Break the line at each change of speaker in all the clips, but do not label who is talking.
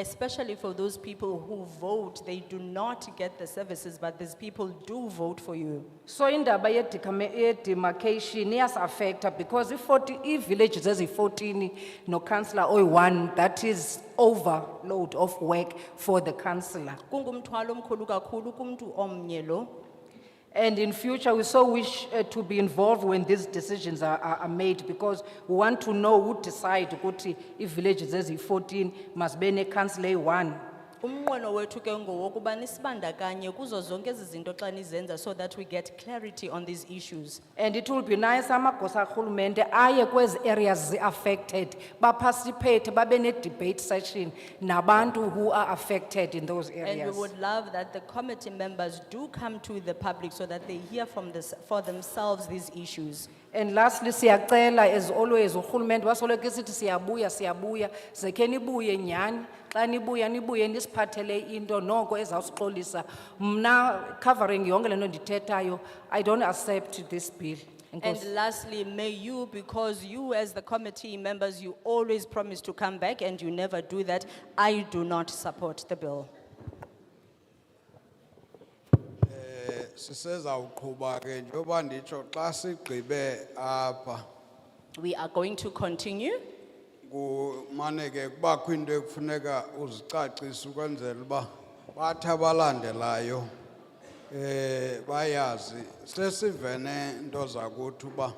especially for those people who vote, they do not get the services, but these people do vote for you.
So indaba ye demarcation iyas affecta because i forty, i villages ezi fourteen, no councillor oyi one, that is overload of work for the councillor.
Kungumthwalo omkhulu kakhulu kumntu omnye lo.
And in future, we so wish eh, to be involved when these decisions are, are, are made because we want to know who decide ukuthi i villages ezi fourteen must be ne councillor eyi one.
Umnqweno wethu ke ngowokuba nisibandakanye kuzo zonke ezi zinto xa nizenza so that we get clarity on these issues.
And it will be nice amagosa karhulumente aye kwezi areas affected, participate, babe ne debate session nabantu who are affected in those
And we
areas.
would love that the committee members do come to the public so that they hear from this, for themselves these issues.
And lastly, siyacela as always, urhulumente wasoloko isithi siyabuya, siyabuya, ze ke nibuye nyhani, xa nibuya nibuye nisiphathele into noko ezawusixolisa. Mna covering yonke le nto ndithethayo, I don't accept this bill.
And
Enkosi.
lastly, may you, because you as the committee members, you always promise to come back and you never do that, I do not support the bill.
sisezawuqhuba ke njengoba nditsho xa sigqibe apha
We are going to continue.
kumane ke kubakho into ekufuneka uzicacise ukwenzela uba bathi abalandelayo um bayazi sesivene nto zakuthi uba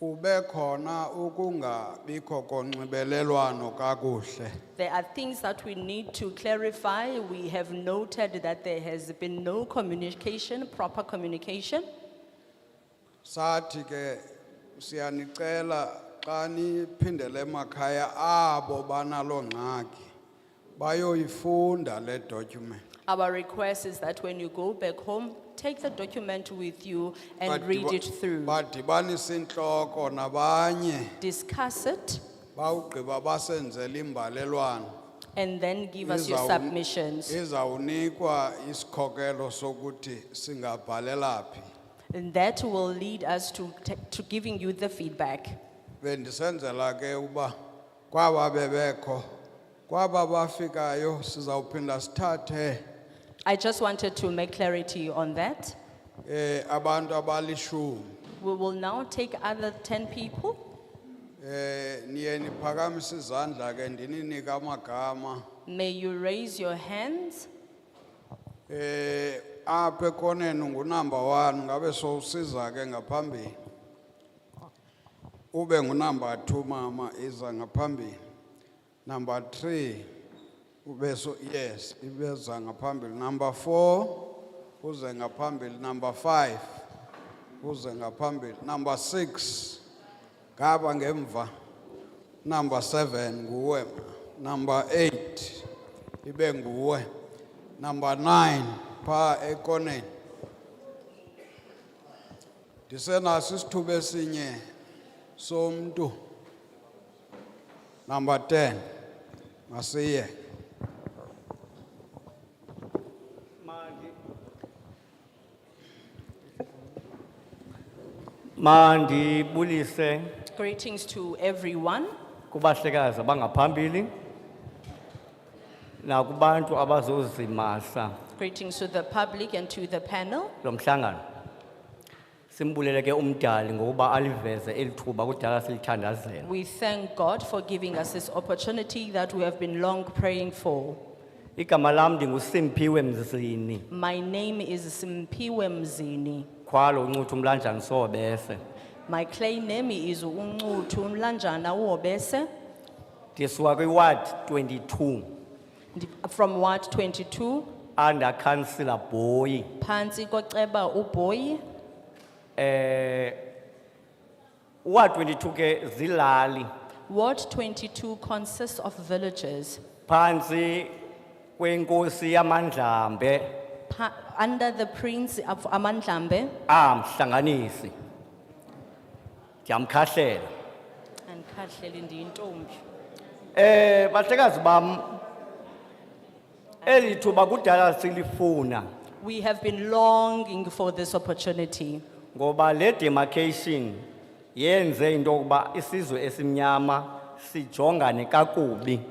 kube khona ukungabikho konxibelelwano kakuhle
There are things that we need to clarify. We have noted that there has been no communication, proper communication.
sathi ke siyanicela xa niphindele emakhaya abo banaloo ngxaki bayoyifunda le document
Our request is that when you go back home, take the document with you and
Badiba-
read it through.
badibanise intloko nabanye
Discuss it
bawugqiba basenzele imbalelwano
and then give us your
Izawun-
submissions.
izawunikwa isikhokelo sokuthi singabhalela phi
And that will lead us to, ta- to giving you the feedback.
bendisenzela ke uba kwaba bebekho kwaba bafikayo sizawuphinda sithathe
I just wanted to make clarity on that.
eh abantu abalishumi
We will now take other ten people.
eh niye niphakamise izandla ke ndininike amagama
May you raise your hands.
eh apha ekoneni ngunumber 1 ngabe sowusiza ke ngaphambili ube ngunumber 2 mama iza ngaphambili number 3 ube so yes ibeza ngaphambili number 4 uze ngaphambili number 5 uze ngaphambili number 6 ngaba ngemva number 7 nguwe number 8 ibe nguwe number 9 pha ekoneni ndisenaso isithuba esinye somntu number 10 masiye
Mandibulise
Greetings to everyone
kubahlekazi abangaphambili nakubantu abazozimasa
Greetings to the public and to the panel.
lomhlangano. Simbulele ke umdali ngokuba aliveze elithuba kudala silithandazela.
We thank God for giving us this opportunity that we have been long praying for.
Igama lam ndinguSimphiwe Mzini,
My name is Simpiwe Mzini.
khwalo uncuthu umlanjani sobese.
My claim name is Ungutu Mlanjana Wobese
Ndisuka kwiward 22
ndi- from Ward twenty-two,
under councillor Boyi.
Panzi Kotreba Uboyi.
Eh Ward 22 ke zilali
Ward twenty-two consists of villages
phansi kwenkosi yamandlambe
pa- under the prince of Amandlambe
amhlanganisi ndiyamkhahlela
and Katlelindi Ntombi.
eh bahlekazi bam elithuba kudala silifuna
We have been longing for this opportunity
ngoba le demarcation yenze into yokuba isizwe esimnyama sijongane kakubi